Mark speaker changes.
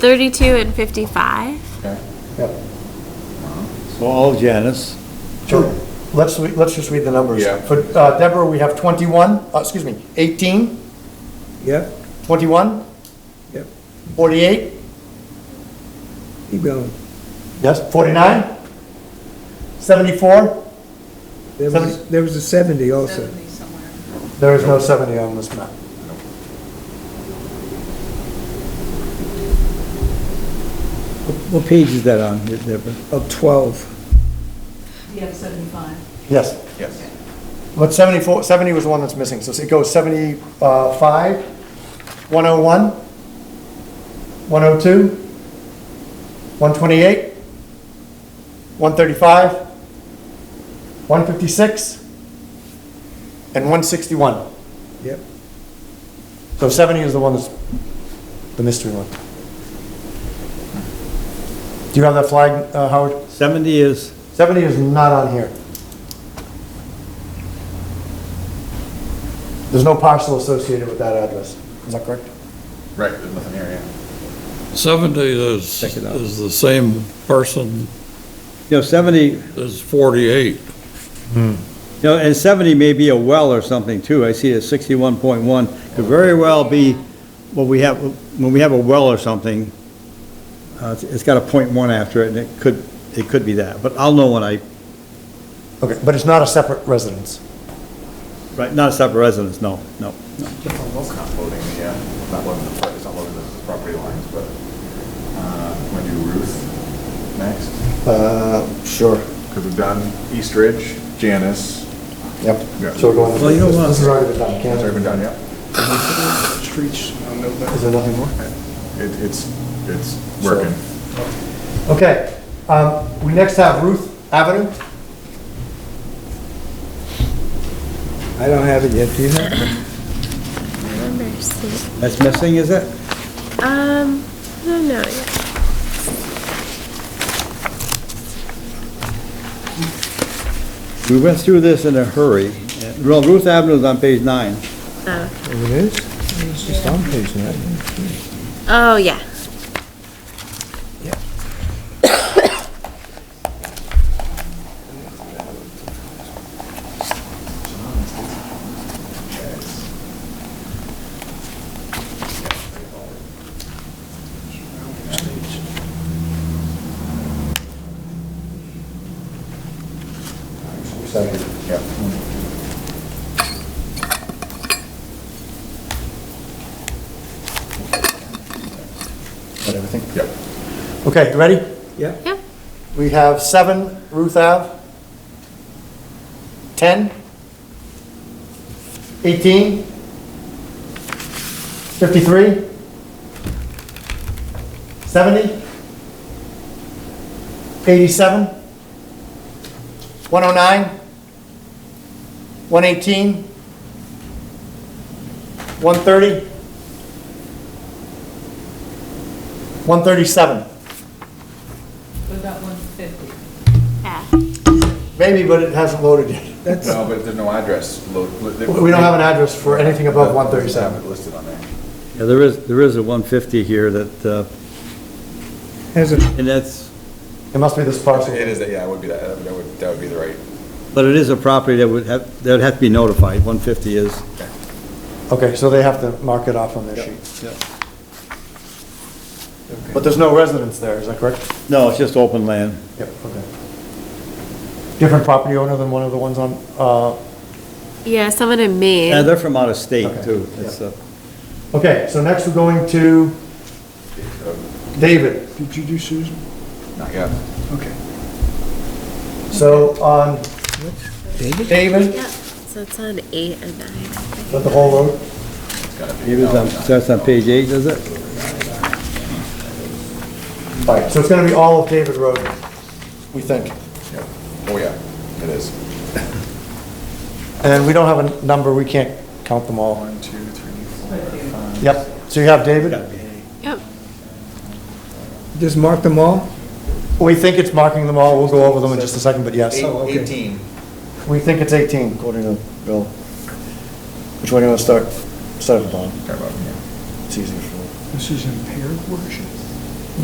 Speaker 1: 32 and 55.
Speaker 2: Yep.
Speaker 3: So all Janice,
Speaker 2: Sure. Let's, re- let's just read the numbers.
Speaker 4: Yeah.
Speaker 2: For uh, Deborah, we have 21, uh, excuse me, 18,
Speaker 4: Yep,
Speaker 2: 21,
Speaker 4: yep,
Speaker 2: 48,
Speaker 4: keep going.
Speaker 2: yes, 49, 74.
Speaker 4: There was, there was a seventy also.
Speaker 2: There is no 70 on this map.
Speaker 4: What page is that on, Deborah? Of twelve.
Speaker 5: We have 75.
Speaker 2: Yes. Yes. But 74, 70 was the one that's missing, so it goes oh 75, 101, 102, 128, 135, 156, and 161.
Speaker 4: Yep.
Speaker 2: So 70 is the one that's the mystery one. Do you have that flag, uh, Howard?
Speaker 3: 70 is,
Speaker 2: 70 is not on here. There's no parcel associated with that address. Is that correct?
Speaker 6: Right, there's nothing here, yeah.
Speaker 7: 70 is,
Speaker 4: Check it out.
Speaker 7: is the same person
Speaker 8: No, 70,
Speaker 7: as 48.
Speaker 8: no, and 70 may be a well or something too. I see it 61.1, could very well be, what we have, when we have a well or something, uh, it's- it's got a .1 after it, and it could, it could be that, but I'll know when I,
Speaker 2: Okay, but it's not a separate residence.
Speaker 8: right, not a separate residence, no, no.
Speaker 6: Almost not loading, yeah, not loading the, pro- it's not loading the property lines, but, uh, want to do Ruth next?
Speaker 2: Uh, sure.
Speaker 6: Because we've done East Ridge, Janice,
Speaker 2: Yep.
Speaker 6: Yeah.
Speaker 2: So we're going,
Speaker 8: Well, you know what?
Speaker 2: this has already been done,
Speaker 6: that's already
Speaker 2: can't
Speaker 6: been
Speaker 2: it?
Speaker 6: done, yeah. Streets, I don't know that.
Speaker 2: Is there nothing more?
Speaker 6: It, it's, it's
Speaker 2: So-
Speaker 6: working.
Speaker 2: Okay, um, we next have Ruth Avenue.
Speaker 4: I don't have it yet, do you have it?
Speaker 8: That's missing, is it?
Speaker 1: Um, I don't know yet.
Speaker 8: We went through this in a hurry. Well, Ruth Avenue's on page nine.
Speaker 4: It is? It's just on page nine.
Speaker 1: Oh, yeah.
Speaker 2: Got everything?
Speaker 6: Yep.
Speaker 2: Okay, you ready?
Speaker 4: Yeah.
Speaker 1: Yep.
Speaker 2: We have seven Ruth Ave. 10. 18. 53. 70. 87. 109. 118. 130. 137.
Speaker 5: What about 150?
Speaker 1: Yeah.
Speaker 2: Maybe, but it hasn't loaded yet.
Speaker 6: No, but there's no address. lo- lo- they-
Speaker 2: We don't have an address for anything above 137.
Speaker 6: It's Listed on there.
Speaker 8: Yeah, there is, there is a 150 here that, uh,
Speaker 4: Has it,
Speaker 8: and that's,
Speaker 2: It must be this parcel.
Speaker 6: It is, that- yeah, it would be that, that would- that would, that would be the right.
Speaker 8: but it is a property that would have, that would have to be notified, 150 is.
Speaker 2: Okay, so they have to mark it off on their sheet.
Speaker 8: Yep.
Speaker 2: But there's no residence there, is that correct?
Speaker 8: No, it's just open land.
Speaker 2: Yep, okay. Different property owner than one of the ones on, uh,
Speaker 1: Yeah, someone in Maine.
Speaker 8: Yeah, they're from out of state,
Speaker 2: Okay.
Speaker 8: too. It's, uh,
Speaker 2: okay, so next we're going to David.
Speaker 4: did you do Susan?
Speaker 6: Not yet.
Speaker 4: Okay.
Speaker 2: So on
Speaker 4: David?
Speaker 2: David,
Speaker 1: Yep. So it's on 8 and 9. I think.
Speaker 2: with the whole road,
Speaker 6: It's gotta be.
Speaker 8: it was on- That's on page eight, is it?
Speaker 2: all right, so it's gonna be all of David Road, we think.
Speaker 6: Yep. Oh, yeah, it is.
Speaker 2: And we don't have a number, we can't count them all.
Speaker 6: One, two, three, four, five.
Speaker 2: Yep, so you have David?
Speaker 1: Yep.
Speaker 4: Just mark them all?
Speaker 2: We think it's marking them all, we'll go over them in just a second, but yes.
Speaker 4: okay.
Speaker 6: Eighteen.
Speaker 2: We think it's 18, according to Bill. Which one do you want to start? Start at the bottom,
Speaker 6: Sorry about that.
Speaker 2: it's easier for
Speaker 4: This is impaired worship.